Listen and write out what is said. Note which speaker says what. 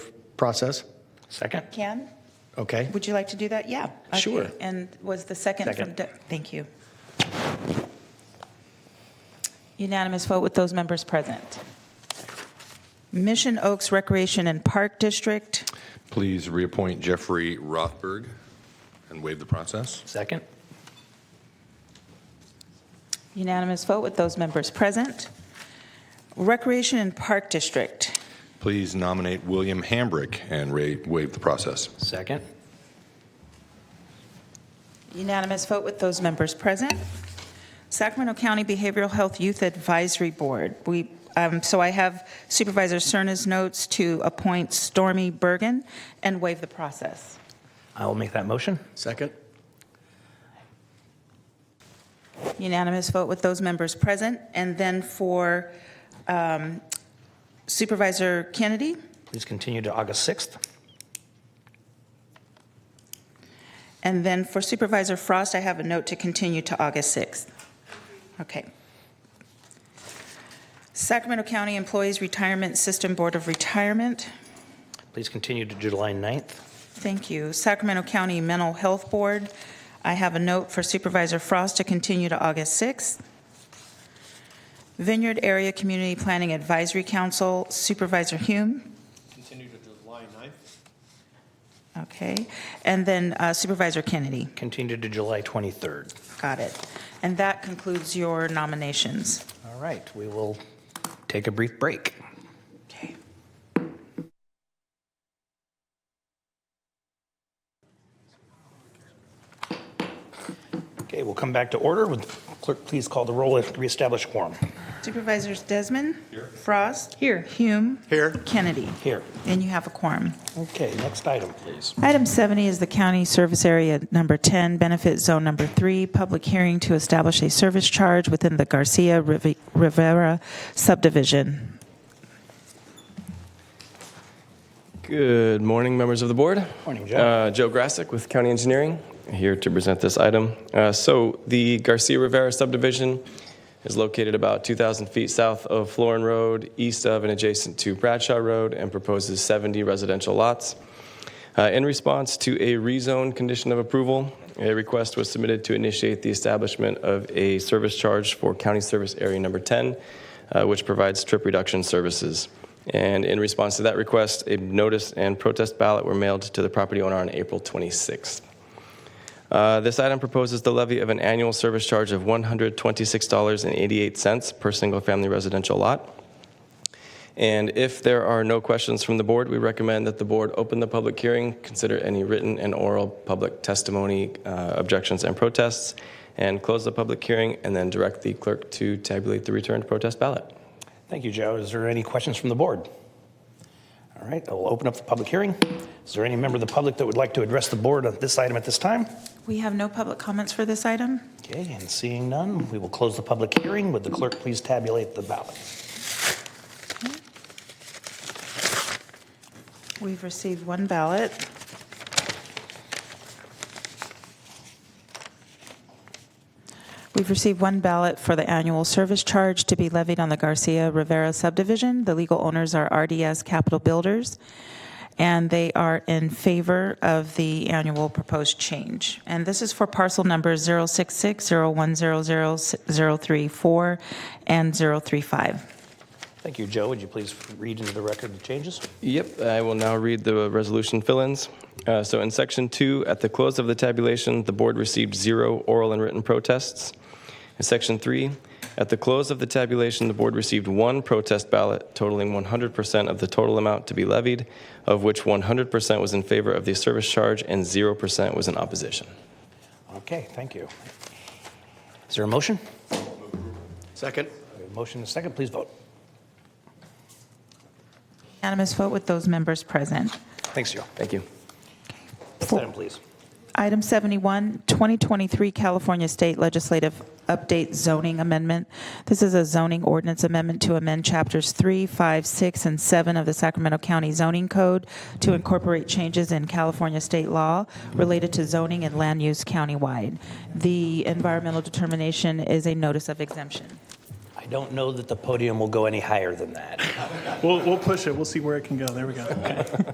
Speaker 1: process?
Speaker 2: Second?
Speaker 3: Can,
Speaker 1: Okay.
Speaker 3: would you like to do that? Yeah. Okay.
Speaker 1: Sure.
Speaker 3: And was the second from,
Speaker 2: Second.
Speaker 3: Doug? thank you. Unanimous vote with those members present. Mission Oaks Recreation and Park District,
Speaker 4: Please reappoint Jeffrey Rothberg and waive the process.
Speaker 2: Second?
Speaker 3: unanimous vote with those members present. Recreation and Park District,
Speaker 4: Please nominate William Hambrick and ra- waive the process.
Speaker 2: Second?
Speaker 3: unanimous vote with those members present. Sacramento County Behavioral Health Youth Advisory Board, we, um, so I have Supervisor Cerna's notes to appoint Stormy Bergen and waive the process.
Speaker 2: I will make that motion.
Speaker 1: Second?
Speaker 3: Unanimous vote with those members present. And then for um, Supervisor Kennedy,
Speaker 2: Please continue to August 6th.
Speaker 3: and then for Supervisor Frost, I have a note to continue to August 6th. Okay. Sacramento County Employees Retirement System Board of Retirement,
Speaker 2: Please continue to July 9th.
Speaker 3: thank you. Sacramento County Mental Health Board, I have a note for Supervisor Frost to continue to August 6th. Vineyard Area Community Planning Advisory Council, Supervisor Hume.
Speaker 5: Continue to July 9th.
Speaker 3: Okay, and then uh, Supervisor Kennedy,
Speaker 2: Continue to July 23rd.
Speaker 3: got it. And that concludes your nominations.
Speaker 2: All right, we will take a brief break.
Speaker 3: Okay.
Speaker 2: Okay, we'll come back to order. Would clerk please call the roll and reestablish quorum?
Speaker 3: Supervisors Desmond? Frost? Here. Hume?
Speaker 1: Here.
Speaker 3: Kennedy?
Speaker 2: Here.
Speaker 3: And you have a quorum.
Speaker 2: Okay, next item, please.
Speaker 3: Item 70 is the County Service Area Number 10, Benefit Zone Number 3, public hearing to establish a service charge within the Garcia Rivi- Rivera subdivision.
Speaker 6: Good morning, members of the board.
Speaker 2: Morning, Joe.
Speaker 6: Uh, Joe Grassick with County Engineering, here to present this item. Uh, So the Garcia Rivera subdivision is located about 2,000 feet south of Florin Road, east of and adjacent to Bradshaw Road, and proposes 70 residential lots. Uh, In response to a rezone condition of approval, a request was submitted to initiate the establishment of a service charge for County Service Area Number 10, uh, which provides trip reduction services. And in response to that request, a notice and protest ballot were mailed to the property owner on April 26th. Uh, This item proposes the levy of an annual service charge of $126.88 per single-family residential lot. And if there are no questions from the board, we recommend that the board open the public hearing, consider any written and oral public testimony, uh, objections, and protests, and close the public hearing, and then direct the clerk to tabulate the returned protest ballot.
Speaker 2: Thank you, Joe. Is there any questions from the board? All right, I will open up the public hearing. Is there any member of the public that would like to address the board on this item at this time?
Speaker 3: We have no public comments for this item?
Speaker 2: Okay, and seeing none, we will close the public hearing. Would the clerk please tabulate the ballot?
Speaker 3: We've received one ballot. We've received one ballot for the annual service charge to be levied on the Garcia Rivera subdivision. The legal owners are RDS Capital Builders, and they are in favor of the annual proposed change. And this is for parcel numbers 06601000034 and 035.
Speaker 2: Thank you, Joe. Would you please read into the record the changes?
Speaker 6: Yep, I will now read the resolution fill-ins. Uh, So in section two, at the close of the tabulation, the board received zero oral and written protests. In section three, at the close of the tabulation, the board received one protest ballot totaling 100% of the total amount to be levied, of which 100% was in favor of the service charge and 0% was in opposition.
Speaker 2: Okay, thank you. Is there a motion?
Speaker 1: Second?
Speaker 2: We have a motion and a second. Please vote.
Speaker 3: Unanimous vote with those members present.
Speaker 2: Thanks, Joe.
Speaker 6: Thank you.
Speaker 2: Next item, please.
Speaker 3: Item 71, 2023 California State Legislative Update Zoning Amendment. This is a zoning ordinance amendment to amend Chapters 3, 5, 6, and 7 of the Sacramento County Zoning Code to incorporate changes in California state law related to zoning and land use countywide. The environmental determination is a notice of exemption.
Speaker 2: I don't know that the podium will go any higher than that.
Speaker 7: We'll, we'll push it. We'll see where it can go. There we go.